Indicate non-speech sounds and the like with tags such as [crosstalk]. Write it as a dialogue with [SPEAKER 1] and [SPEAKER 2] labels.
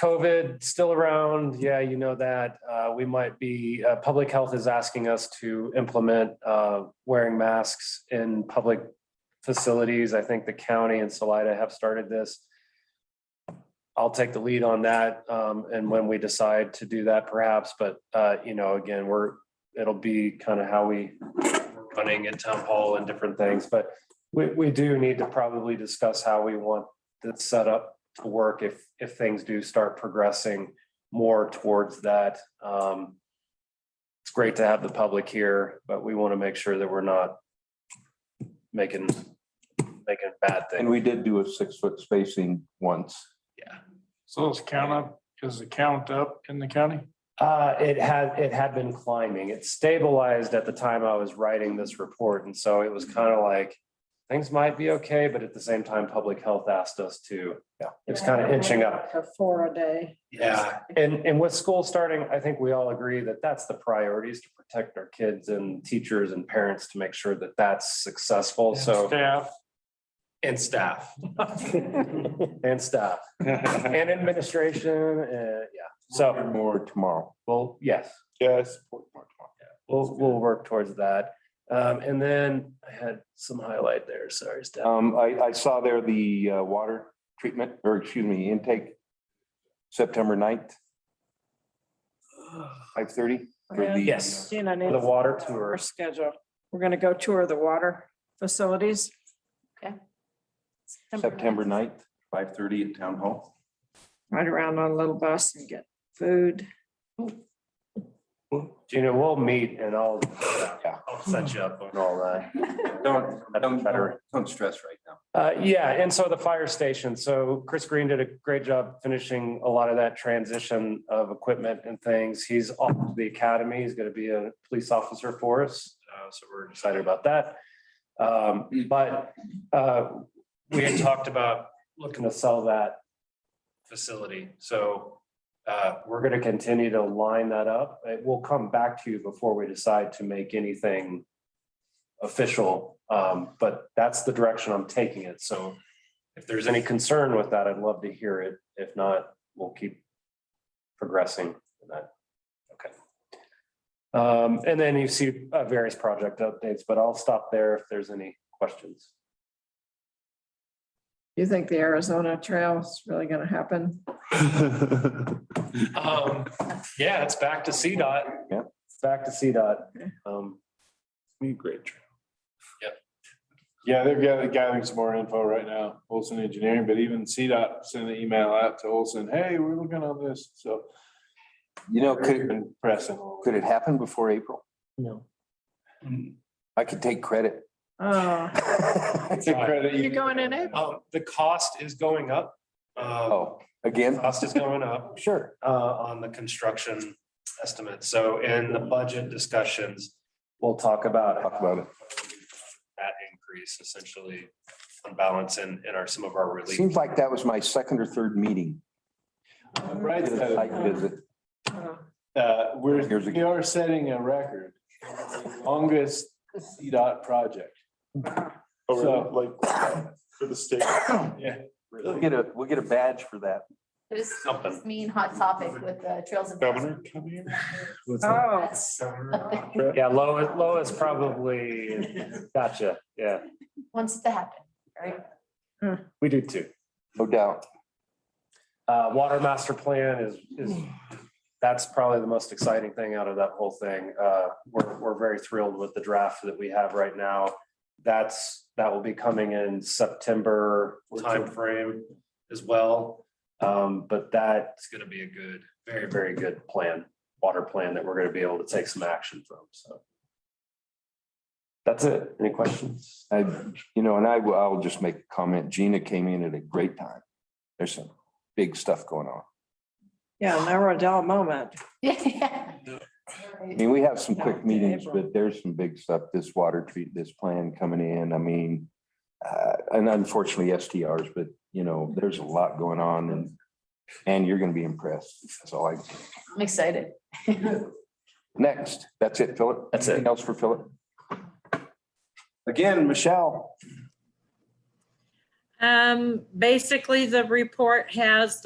[SPEAKER 1] COVID still around. Yeah, you know that. Uh, we might be, uh, public health is asking us to implement uh, wearing masks in public facilities. I think the county and Salida have started this. I'll take the lead on that. um, And when we decide to do that perhaps, but, uh, you know, again, we're, it'll be kind of how we we're running in town hall and different things, but we, we do need to probably discuss how we want this set up to work if, if things do start progressing more towards that. Um, It's great to have the public here, but we want to make sure that we're not making, making bad
[SPEAKER 2] And
[SPEAKER 1] things.
[SPEAKER 2] we did do a six foot spacing once.
[SPEAKER 3] So is count up, is the count up in the county?
[SPEAKER 1] Uh, it had, it had been climbing. It stabilized at the time I was writing this report. And so it was kind of like, things might be okay, but at the same time, public health asked us to, yeah, it's kind of inching up.
[SPEAKER 4] To four a day.
[SPEAKER 1] Yeah, and, and with school starting, I think we all agree that that's the priority is to protect our kids and teachers and parents to make sure that that's successful, so.
[SPEAKER 3] Staff,
[SPEAKER 1] And staff. [laughs] And staff, and administration, and, yeah, so,
[SPEAKER 2] More tomorrow.
[SPEAKER 1] well, yes,
[SPEAKER 2] Yes.
[SPEAKER 1] we'll, we'll work towards that. Um, and then I had some highlight there, sorry, Steph.
[SPEAKER 2] Um, I, I saw there the uh, water treatment, or excuse me, intake, September 9th, five thirty.
[SPEAKER 1] Yes.
[SPEAKER 4] Gina needs
[SPEAKER 1] The water
[SPEAKER 4] our
[SPEAKER 1] tour,
[SPEAKER 4] schedule. We're gonna go tour the water facilities.
[SPEAKER 2] September 9th, five thirty at Town Hall.
[SPEAKER 4] Ride around on a little bus and get food.
[SPEAKER 1] Gina, we'll meet and I'll,
[SPEAKER 2] Yeah.
[SPEAKER 1] I'll set you up on all that.
[SPEAKER 2] Don't,
[SPEAKER 1] don't-
[SPEAKER 2] don't stress right now.
[SPEAKER 1] Uh, yeah, and so the fire station. So Chris Green did a great job finishing a lot of that transition of equipment and things. He's off to the academy. He's going to be a police officer for us. Uh, so we're excited about that. Um, but, uh, we had talked about looking to sell that facility. So, uh, we're going to continue to line that up. It will come back to you before we decide to make anything official, um, but that's the direction I'm taking it. So if there's any concern with that, I'd love to hear it. If not, we'll keep progressing in that. Okay. Um, and then you see uh, various project updates, but I'll stop there if there's any questions.
[SPEAKER 4] You think the Arizona Trail is really gonna happen?
[SPEAKER 1] Um, yeah, it's back to CDOT.
[SPEAKER 2] Yeah.
[SPEAKER 1] It's back to CDOT. Um,
[SPEAKER 5] Great. trail.
[SPEAKER 1] Yep.
[SPEAKER 5] Yeah, they're gathering, gathering some more info right now, Olson Engineering, but even CDOT sent an email out to Olson, hey, we're looking on this, so.
[SPEAKER 2] You know,
[SPEAKER 5] they've
[SPEAKER 2] could,
[SPEAKER 5] Been pressing. a little
[SPEAKER 2] could it happen before April?
[SPEAKER 1] No.
[SPEAKER 2] I could take credit. [laughs]
[SPEAKER 4] Oh,
[SPEAKER 5] bit. Take credit,
[SPEAKER 4] you're going in April?
[SPEAKER 1] Um, the cost is going up. Uh,
[SPEAKER 2] Oh, again?
[SPEAKER 1] cost is going up.
[SPEAKER 2] Sure.
[SPEAKER 1] uh, on the construction estimate. So in the budget discussions, we'll talk about.
[SPEAKER 2] Talk about it.
[SPEAKER 1] That increase essentially on balance in, in our, some of our relief.
[SPEAKER 2] Seems like that was my second or third meeting.
[SPEAKER 4] Uh-huh.
[SPEAKER 5] Right,
[SPEAKER 2] Did a site
[SPEAKER 5] uh,
[SPEAKER 2] visit.
[SPEAKER 5] uh, we're,
[SPEAKER 2] Here's a-
[SPEAKER 5] we are setting a record, longest CDOT project.
[SPEAKER 6] Oh,
[SPEAKER 5] So-
[SPEAKER 6] really? Like, for the state?
[SPEAKER 5] Yeah.
[SPEAKER 2] We'll get a, we'll get a badge for that.
[SPEAKER 7] There's
[SPEAKER 1] Something.
[SPEAKER 7] this mean hot topic with the Trails of.
[SPEAKER 6] Governor, come here.
[SPEAKER 4] Oh,
[SPEAKER 7] That's
[SPEAKER 6] Governor.
[SPEAKER 7] a thing.
[SPEAKER 1] Yeah, Lois, Lois probably, gotcha. Yeah,
[SPEAKER 7] [laughs] Wants it to happen, [laughs] right?
[SPEAKER 1] we do too.
[SPEAKER 2] No doubt.
[SPEAKER 1] Uh, water master plan is, is, that's probably the most exciting thing out of that whole thing. Uh, we're, we're very thrilled with the draft that we have right now. That's, that will be coming in September timeframe as well. Um, but that's gonna be a good, very, very good plan, water plan that we're gonna be able to take some action from, so. That's it. Any questions?
[SPEAKER 2] I, you know, and I will, I'll just make a comment. Gina came in at a great time. There's some big stuff going on.
[SPEAKER 4] yeah, now we're a dull moment.
[SPEAKER 7] Yeah.
[SPEAKER 2] I mean, we have some quick meetings, but there's some big stuff, this water treat, this plan coming in, I mean, uh, and unfortunately STRs, but you know, there's a lot going on and, and you're gonna be impressed. That's all I,
[SPEAKER 7] I'm excited.
[SPEAKER 2] next, that's it, Philip.
[SPEAKER 1] That's it.
[SPEAKER 2] Anything else for Philip? Again, Michelle.
[SPEAKER 8] Um, basically, the report has